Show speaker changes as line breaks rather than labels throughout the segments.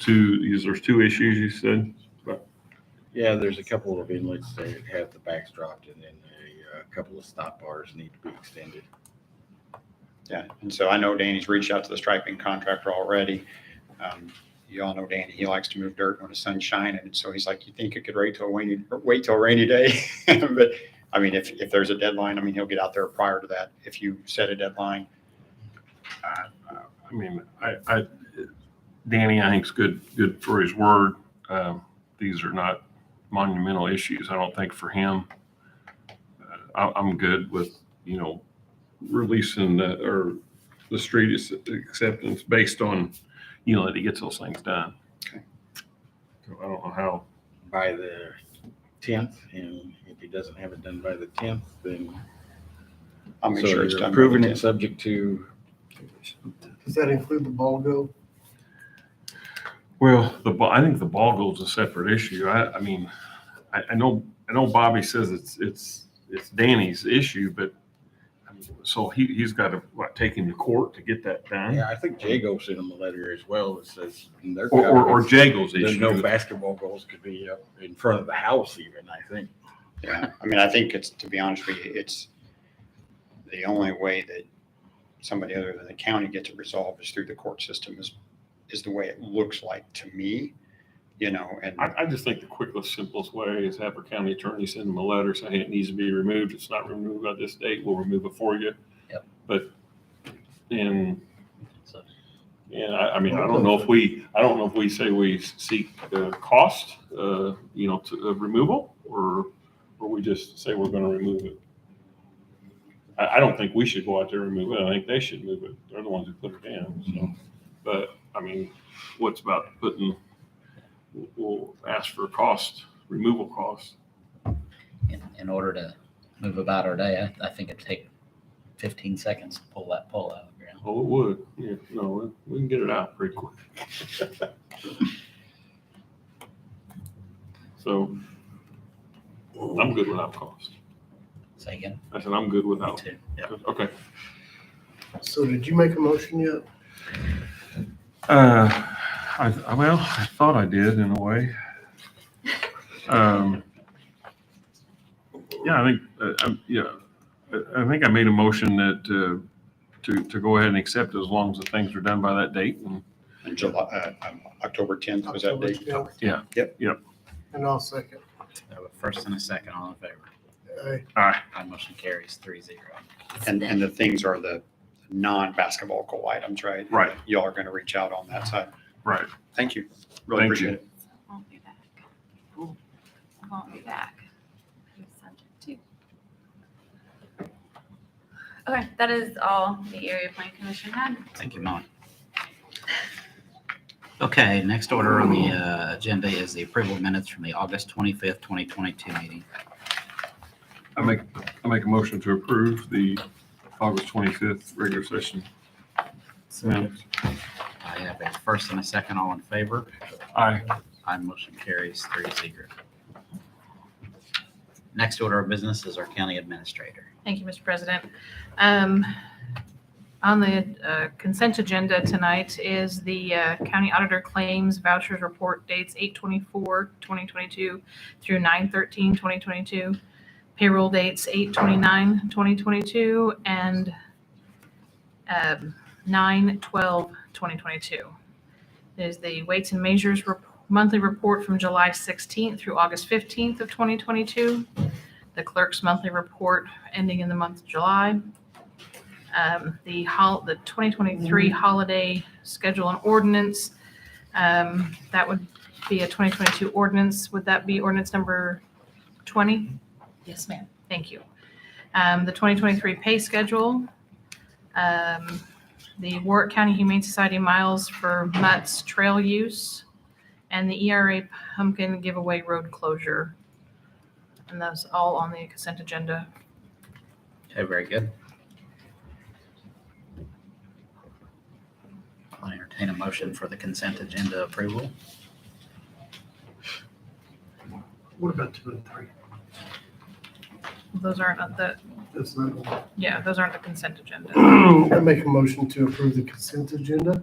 two, is there's two issues you said?
Yeah, there's a couple of inlets that have the backs dropped and then a uh, couple of stop bars need to be extended.
Yeah, and so I know Danny's reached out to the striping contractor already. Um, You all know Danny, he likes to move dirt when the sun's shining, and so he's like, you think it could wait till rainy, or wait till rainy day? But, I mean, if, if there's a deadline, I mean, he'll get out there prior to that, if you set a deadline.
I mean, I, I, Danny, I think's good, good for his word. Um, These are not monumental issues, I don't think, for him. Uh, I, I'm good with, you know, releasing the, or the street is- acceptance based on, you know, that he gets those things done.
Okay.
So I don't know how,
by the tenth, and if he doesn't have it done by the tenth, then.
I'll make
So
sure it's
you're
done. by the
Approving it
10th.
subject to,
Does that include the ball go?
well, the, ba- I think the ball goal's a separate issue. I, I mean, I, I know, I know Bobby says it's, it's, it's Danny's issue, but I mean, so he, he's got to, what, take him to court to get that done?
yeah, I think Jago sent him a letter as well that says. in their
Or, or, or
conference,
Jago's
There's no
issue.
basketball goals could be up in front of the house even, I think.
Yeah, I mean, I think it's, to be honest with you, it's the only way that somebody other than the county gets it resolved is through the court system is, is the way it looks like to me, you know, and.
I, I just think the quickest, simplest way is have our county attorney send them a letter saying it needs to be removed. It's not removed by this date. We'll remove it for you.
Yep.
But, and,
So-
and I, I mean, I don't know if we, I don't know if we say we seek, uh, cost, uh, you know, to, of removal, or, or we just say we're gonna remove it. I, I don't think we should go out there and remove it. I think they should move it. They're the ones who put it in, so. But, I mean, what's about putting we'll ask for a cost, removal cost.
in, in order to move about our day, I, I think it'd take fifteen seconds to pull that pole out of the ground.
Oh, it would. Yeah, no, we- we can get it out pretty quick. So I'm good without cost.
Say again?
I said, I'm good
Me
without.
too. Yep.
Okay.
So did you make a motion yet?
Uh, I, I- well, I thought I did in a way. Um, yeah, I think, uh, I'm, yeah, I, I think I made a motion that, uh, to, to go ahead and accept as long as the things are done by that date and
in July, uh, um, October 10th was that
October
date?
12th?
Yeah.
Yep.
Yep.
And I'll second.
First and a second, all in favor?
Aye.
My motion carries three zero.
And, and the things are the non-basketball goal items, right?
Right.
Y'all are going to reach out on that side.
Right.
Thank you. Really
Thank
appreciate
you.
it.
I won't be back. I won't be back. I'm subject to. Okay, that is all the area plan commission had.
Thank you, Molly. Okay, next order on the uh, agenda is the approval of minutes from the August twenty-fifth, twenty twenty-two meeting.
I make, I make a motion to approve the August twenty-fifth regular session. minutes.
I have a first and a second, all in favor?
Aye.
My motion carries three zero. Next order of business is our county administrator.
Thank you, Mr. President. Um, On the uh, consent agenda tonight is the uh, county auditor claims vouchers report dates 8/24/2022 through 9/13/2022. Payroll dates 8/29/2022 and um, 9/12/2022. There's the weights and measures rep- monthly report from July 16th through August 15th of 2022. The clerk's monthly report ending in the month of July. Um, The hol, the 2023 holiday schedule and ordinance, um, that would be a 2022 ordinance. Would that be ordinance number 20?
Yes, ma'am.
Thank you. Um, The 2023 pay schedule, um, the Warwick County Humane Society miles for Mutt's trail use, and the ERA pumpkin giveaway road closure. And that's all on the consent agenda
Okay, very good. I'll entertain a motion for the consent agenda approval.
What about two and three?
Those aren't, on the,
That's not one.
yeah, those aren't the consent agenda.
I make a motion to approve the consent agenda.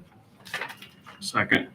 Second.